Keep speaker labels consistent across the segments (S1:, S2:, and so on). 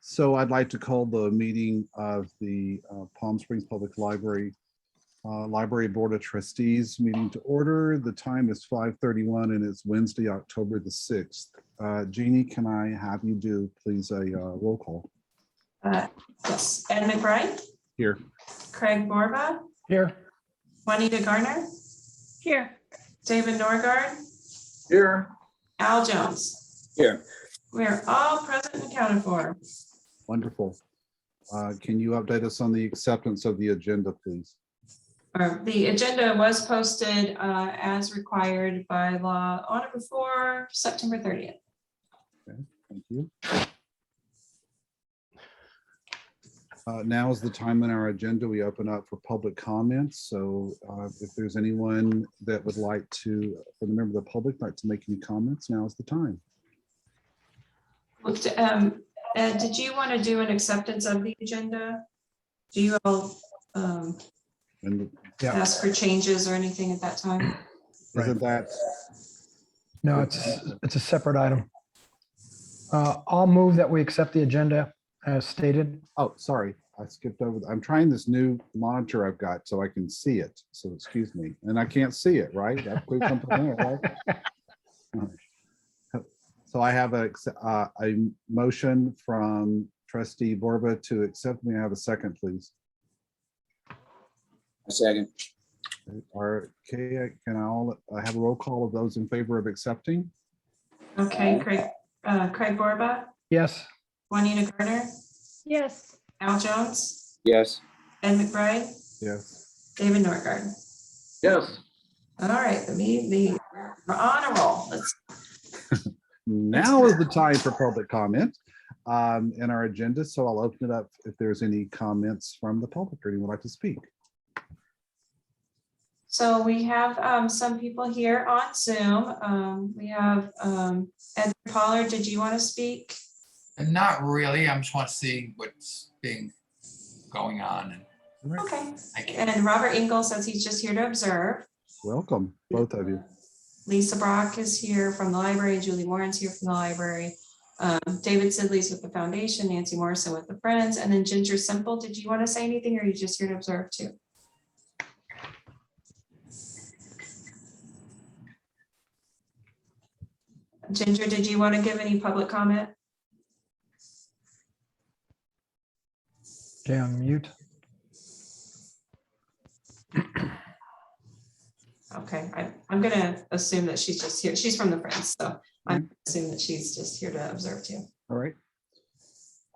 S1: So I'd like to call the meeting of the uh, Palm Springs Public Library, uh, Library Board of Trustees meeting to order. The time is 5:31 and it's Wednesday, October the 6th. Uh, Jeannie, can I have you do, please, a uh, roll call?
S2: Uh, Yes, Ed McBride,
S1: Here.
S2: Craig Borba,
S3: Here.
S2: Juanita Garner,
S4: Here.
S2: David Norgard,
S3: Here.
S2: Al Jones.
S3: Here.
S2: We're all present and counted for.
S1: Wonderful. Uh, Can you update us on the acceptance of the agenda, please?
S2: Or The agenda was posted uh, as required by law on or before September 30th.
S1: Thank you. Uh, Now is the time on our agenda. We open up for public comments. So uh, if there's anyone that would like to, for the member of the public, like to make any comments, now is the time.
S2: Looked, um, Ed, did you want to do an acceptance of the agenda? Do you all um,
S1: And
S3: Yeah,
S2: ask for changes or anything at that time?
S1: isn't that,
S3: no, it's, it's a separate item. Uh, I'll move that we accept the agenda as stated.
S1: oh, sorry, I skipped over. I'm trying this new monitor I've got so I can see it. So excuse me, and I can't see it, right? That could come from there, right? So I have a, ex- uh, a motion from trustee Borba to accept. May I have a second, please?
S5: A second.
S1: Or, okay, can I all, I have a roll call of those in favor of accepting?
S2: Okay, Craig, uh, Craig Borba,
S3: Yes,
S2: Juanita Garner,
S4: Yes.
S2: Al Jones.
S5: Yes.
S2: Ed McBride,
S1: Yes.
S2: David Norgard.
S5: Yes.
S2: All right, the meeting, the, we're on a roll. Let's,
S1: Now is the time for public comment um, in our agenda, so I'll open it up if there's any comments from the public or anyone would like to speak.
S2: so we have, um, some people here on Zoom. Um, we have, um, Ed Pollard, did you want to speak?
S6: Not really. I'm just want to see what's being going on and
S2: Okay,
S6: I can
S2: and Robert Engel says he's just here to observe.
S1: Welcome, both of you.
S2: Lisa Brock is here from the library, Julie Warren's here from the library. Um, David Sidley's with the foundation, Nancy Morrison with the Friends, and then Ginger Simple, did you want to say anything or are you just here to observe too? Ginger, did you want to give any public comment?
S3: okay, I'm mute.
S2: Okay, I, I'm gonna assume that she's just here, she's from the Friends, so I'm assuming that she's just here to observe too.
S1: All right.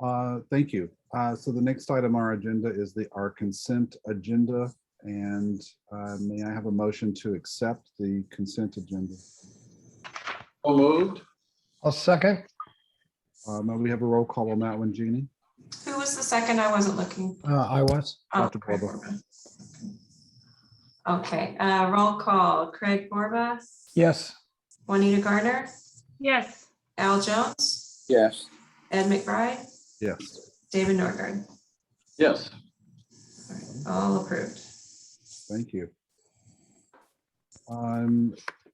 S1: Uh, Thank you. Uh, So the next item on our agenda is the, our consent agenda. And uh, may I have a motion to accept the consent agenda?
S5: So moved.
S3: I'll second.
S1: Uh, May we have a roll call on that one, Jeannie?
S2: Who was the second? I wasn't looking.
S3: Uh, I was.
S2: Oh,
S1: Dr.
S2: Craig
S1: Borba.
S2: Borba. Okay, uh, roll call. Craig Borba,
S3: Yes,
S2: Juanita Garner,
S4: Yes.
S2: Al Jones,
S5: Yes.
S2: Ed McBride,
S1: Yes.
S2: David Norgard.
S5: Yes.
S2: All approved.
S1: Thank you. Um,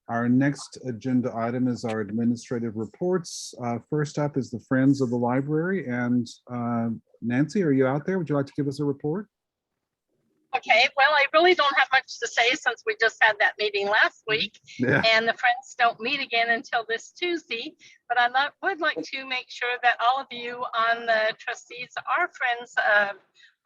S1: Our next agenda item is our administrative reports. Uh, First up is the Friends of the Library. And uh, Nancy, are you out there? Would you like to give us a report?
S7: Okay, well, I really don't have much to say since we just had that meeting last week
S1: Yeah.
S7: and the friends don't meet again until this Tuesday. But I lo- would like to make sure that all of you on the trustees are friends, uh,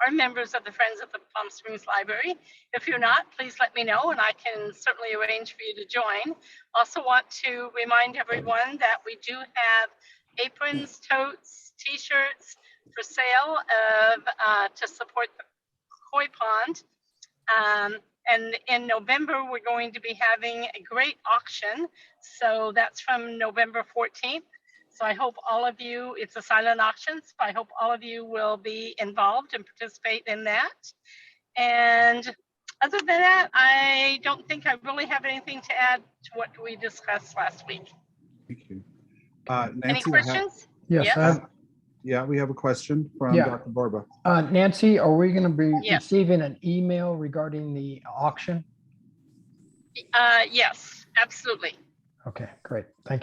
S7: are members of the Friends of the Palm Springs Library. If you're not, please let me know and I can certainly arrange for you to join. Also want to remind everyone that we do have aprons, totes, t-shirts for sale of, uh, to support the koi pond. Um, and in November, we're going to be having a great auction. So that's from November 14th. So I hope all of you, it's a silent auction, so I hope all of you will be involved and participate in that. And other than that, I don't think I really have anything to add to what we discussed last week.
S1: Thank you. Uh,
S7: Any
S1: Nancy, I have-
S7: questions?
S3: yes. I have-
S1: Yeah, we have a question from
S3: Yeah.
S1: Dr. Barba.
S3: Uh, Nancy, are we going to be
S7: Yes.
S3: receiving an email regarding the auction?
S7: Uh, yes, absolutely.
S3: Okay, great. Thank you.